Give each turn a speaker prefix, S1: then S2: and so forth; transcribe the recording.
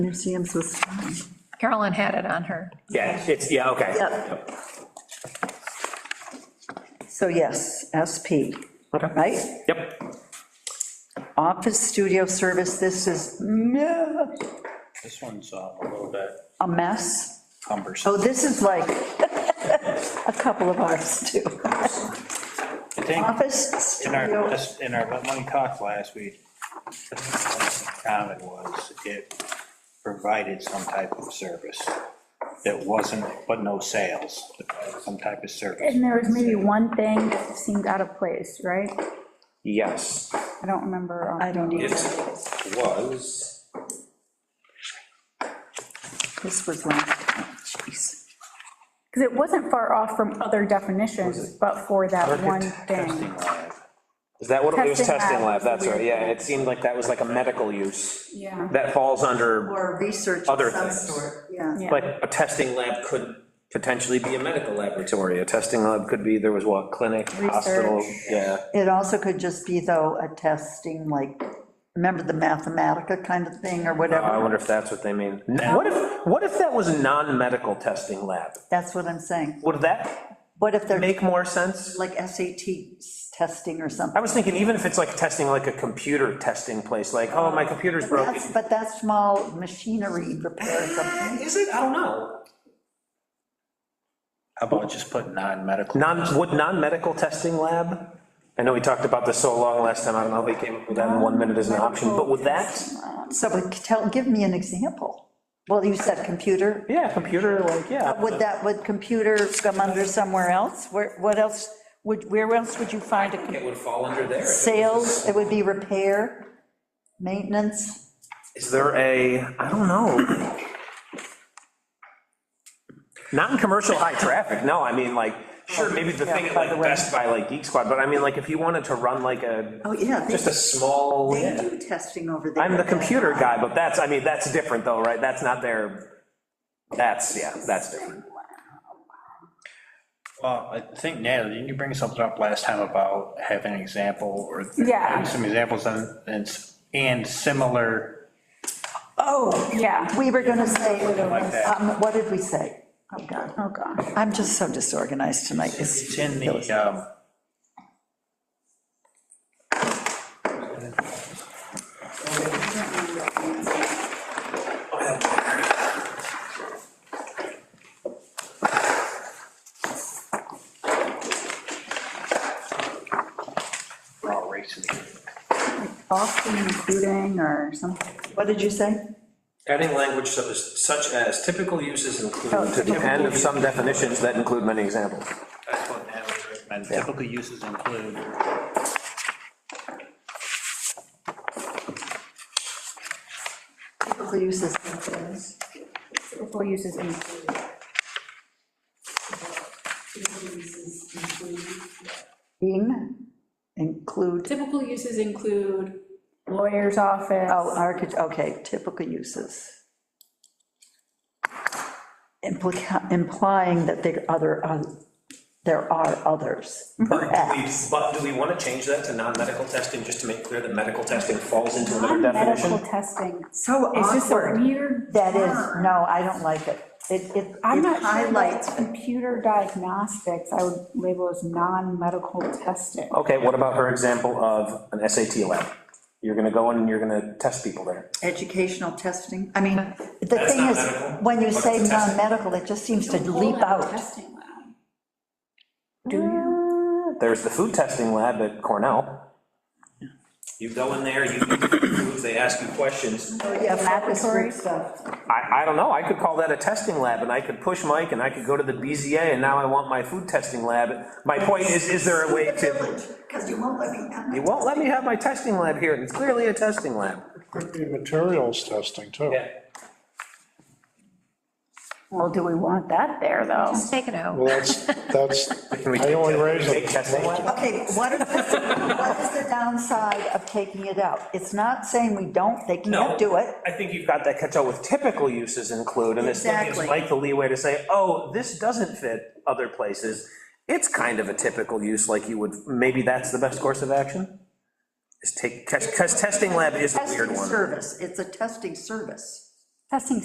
S1: Museums was fine.
S2: Carolyn had it on her.
S3: Yeah, it's, yeah, okay.
S1: Yep. So yes, SP,
S3: Okay.
S1: right?
S3: Yep,
S1: Office studio service, this is meh,
S4: This one's uh, a little bit
S1: a mess.
S4: cumbersome.
S1: Oh, this is like a couple of ours too.
S4: I think
S1: Office
S4: in our,
S1: studio,
S4: this- in our, when we talked last week, the comment was it provided some type of service that wasn't, but no sales, some type of service.
S5: And there was maybe one thing that seemed out of place, right?
S3: yes,
S5: I don't remember. um,
S1: I don't e- need,
S3: it was,
S1: this was last, jeez.
S5: Because it wasn't far off from other definitions, but for that one
S4: Architect
S5: thing.
S4: testing lab.
S3: is that what, it was
S5: Testing
S3: testing lab,
S5: lab.
S3: that's right, yeah, and it seemed like that was like a medical use.
S5: Yeah.
S3: That falls under,
S1: Or research
S3: Other
S1: of some
S3: things.
S1: sort, yeah.
S5: Yeah.
S3: like, a testing lab could potentially be a medical laboratory, a testing lab could be, there was what, clinic, hospital,
S5: Research.
S3: yeah.
S1: It also could just be though, a testing, like, remember the Mathematica kind of thing or
S3: I
S1: whatever?
S3: wonder if that's what they mean. What if, what if that was a non-medical testing lab?
S1: That's what I'm saying.
S3: Would that
S1: What if they're
S3: make more sense?
S1: like SAT testing or something?
S3: I was thinking, even if it's like testing, like a computer testing place, like, oh, my computer's broken.
S1: That's, but that's small machinery repair or something.
S3: Is it? I don't know.
S4: How about just put non-medical?
S3: Non, would non-medical testing lab? I know we talked about this so long last time, I don't know if we came up with that in one minute as an option, but would that?
S1: So, but tell, give me an example. Well, you said computer,
S3: Yeah, computer, like, yeah.
S1: would that, would computer come under somewhere else? Where, what else, would, where else would you find a, com-
S3: It would fall under there.
S1: sales, it would be repair, maintenance?
S3: Is there a, I don't know. Non-commercial high traffic, no, I mean, like, sure, maybe the thing at like Best Buy, like Geek Squad, but I mean, like, if you wanted to run like a,
S1: Oh, yeah,
S3: just a
S1: they,
S3: small.
S1: they do testing over there.
S3: I'm the computer guy, but that's, I mean, that's different though, right? That's not their, that's, yeah, that's different.
S4: Well, I think Natalie, didn't you bring something up last time about having an example or?
S5: Yeah.
S4: having Some examples and, and s- and similar,
S1: Oh,
S5: Yeah.
S1: we were gonna say,
S4: Like that.
S1: um, what did we say? Oh, God,
S5: Oh, gosh.
S1: I'm just so disorganized tonight.
S4: it's in the, um, we're all racing.
S5: Often including or something.
S1: What did you say?
S6: Adding language such as, such as typical uses include.
S3: To the end of some definitions that include many examples.
S4: That's what Natalie recommended. Typical uses include
S1: Typical uses of things.
S5: Typical uses include.
S1: In, include,
S7: Typical uses include,
S5: Lawyer's office.
S1: oh, architect, okay, typical uses. Implica- Implying that there are other, uh, there are others, perhaps.
S6: But do we want to change that to non-medical testing, just to make clear that medical testing falls into another
S5: Medical
S6: definition?
S5: testing.
S1: So
S5: It's just a weird.
S1: That is,
S5: term.
S1: no, I don't like it. It, it
S5: I'm
S1: it
S5: not sure
S1: highlights,
S5: that computer diagnostics, I would label as non-medical testing.
S3: Okay, what about her example of an SAT lab? You're gonna go in and you're gonna test people there.
S1: educational testing, I mean, the
S6: That's
S1: thing
S6: not
S1: is,
S6: medical.
S1: when you
S6: What's
S1: say
S6: the testing?
S1: non-medical, it just seems to leap
S7: colon
S1: out.
S7: testing lab.
S5: Do you?
S3: There's the food testing lab at Cornell.
S6: You go in there, you, prove, they ask you questions,
S1: Yeah, focus
S5: Laboratory?
S1: group stuff.
S3: I, I don't know, I could call that a testing lab, and I could push Mike, and I could go to the BZA, and now I want my food testing lab. My point is, is there a way to,
S1: Because you won't let me.
S3: you won't let me have my testing lab here, and it's clearly a testing lab.
S8: Could be materials testing, too.
S5: Well, do we want that there, though?
S2: Just take it out.
S8: Well, that's, that's,
S3: Can we
S8: I only
S3: take-
S8: raised
S3: take testing
S8: it.
S3: lab?
S1: Okay, what is, what is the downside of taking it out? It's not saying we don't, they can't
S3: No.
S1: do it.
S3: I think you've got that catch-all with typical uses include, and this gives
S1: Exactly.
S3: Mike the leeway to say, oh, this doesn't fit other places. It's kind of a typical use, like you would, maybe that's the best course of action? Is take, because testing lab is a weird
S1: Testing
S3: one.
S1: service, it's a testing service.
S5: testing